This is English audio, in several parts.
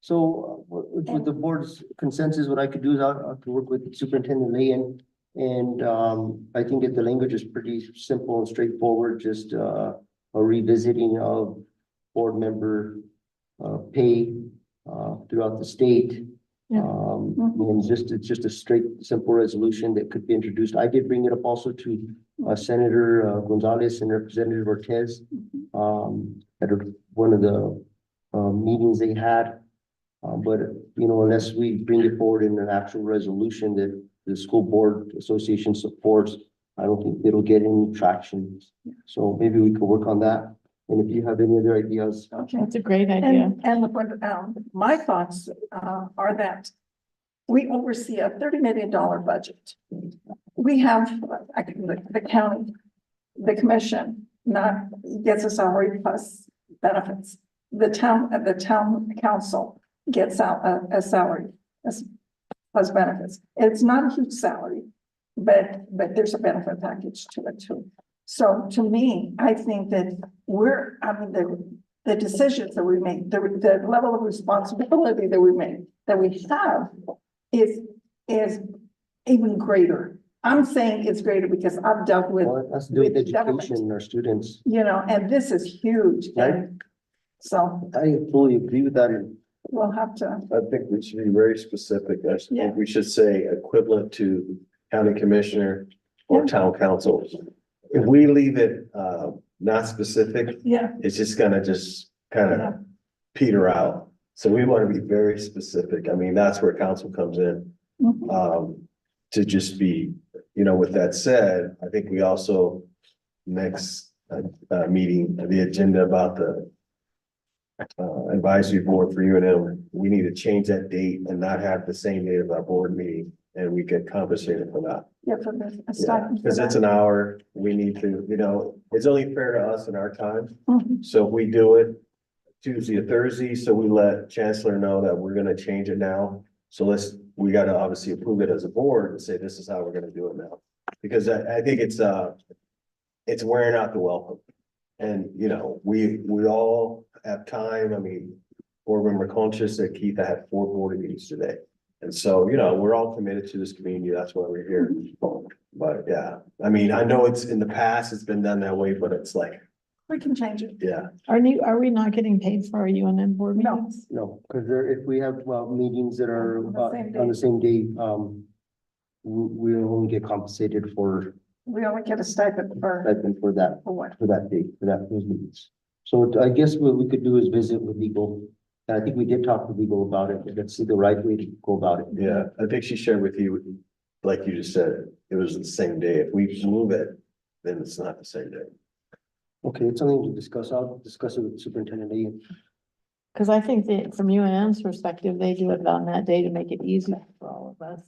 So uh, with with the board's consensus, what I could do is I I could work with Superintendent Leon. And um, I think that the language is pretty simple and straightforward, just uh, a revisiting of board member uh, pay uh, throughout the state. Yeah. Um, Mhm. and just, it's just a straight, simple resolution that could be introduced. I did bring it up also to uh, Senator uh, Gonzalez and Representative Ortiz um, at a- one of the, uh, meetings they had. Uh, but, you know, unless we bring it forward in an actual resolution that the school board association supports, I don't think it'll get any traction. So maybe we could work on that. And if you have any other ideas, Okay, That's a great idea. and, and the one, um, my thoughts, uh, are that we oversee a thirty million dollar budget. We have, I can, the the county, the commission, not, gets a salary plus benefits. The town, uh, the town council gets out uh, a, a salary, as, plus benefits. It's not a huge salary, but, but there's a benefit package to it too. So to me, I think that we're, I mean, the, the decisions that we make, the, the level of responsibility that we make, that we have is, is even greater. I'm saying it's greater because I've dealt with, well, let's do it with With government. education and our students. you know, and this is huge. and So I fully agree with that. and we'll have to, I think we should be very specific. I s- Yeah. think we should say equivalent to county commissioner or Yeah. town council. If we leave it uh not specific, yeah, it's just gonna just kind Yeah. of peter out. So we want to be very specific. I mean, that's where council comes in mhm, um, to just be, you know, with that said, I think we also next, uh, uh, meeting, the agenda about the uh, advisory board for UNM, we need to change that date and not have the same date of our board meeting and we get compensated for that. yeah, for this. a Yeah, stipend for Cause it's that. an hour, we need to, you know, it's only fair to us in our time. Mhm, So if we do it Tuesday or Thursday, so we let Chancellor know that we're gonna change it now. So let's, we gotta obviously approve it as a board and say this is how we're gonna do it now. Because I, I think it's, uh, it's wearing out the welcome. And, you know, we, we all have time, I mean, board member conscious that Keith, I had four board meetings today. And so, you know, we're all committed to this community, that's why we're here. But yeah, I mean, I know it's in the past, it's been done that way, but it's like, We can change it. yeah. Are you, are we not getting paid for our UNM board No, meetings? No, because there, if we have, well, meetings that are On the uh, same on day. the same day, um, we, we'll only get compensated for, we only get a stipend for, for that for what? for that date, for that, those meetings. So what I guess what we could do is visit with legal, and I think we did talk to legal about it, but let's see the right way to go about it. Yeah, I think she shared with you, like you just said, it was the same day. If we move it, then it's not the same day. Okay, it's something to discuss, I'll discuss it with Superintendent Lee. Because I think that from UNM's perspective, they do it on that day to make it easier for all of us.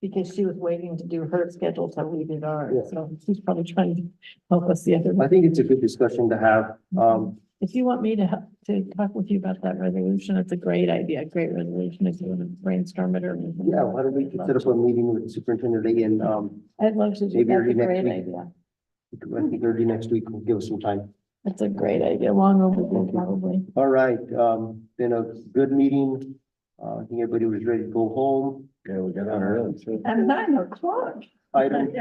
Because she was waiting to do her schedule till we did ours, Yeah. so she's probably trying to help us the other. I way. think it's a good discussion to have, um, If you want me to, help- to talk with you about that resolution, it's a great idea, great resolution, if you want to brainstorm it or. anything. yeah, why don't we set up a meeting with Superintendent Lee and, um, I'd love to do, Maybe that's early a next great week. idea, I think early next week will give us some time. that's a great idea, long overdue probably. All right, um, been a good meeting, uh, I think everybody was ready to go home. Yeah, we got on early too. And nine o'clock. Item,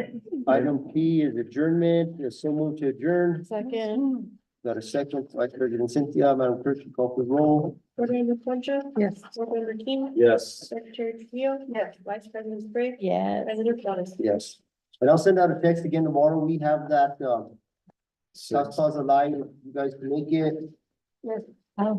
item P is adjournment, is someone to adjourn? Second, Got a second, Vice President Cynthia, Madam Clerk, you call for the roll. Board Member Concha, yes. Board Member King, Yes. Secretary Trujillo, Yes. Vice President Sprague, Yes. President Flores. Yes. And I'll send out a text again tomorrow. We have that, uh, South Plaza Live, if you guys can make it. Yes.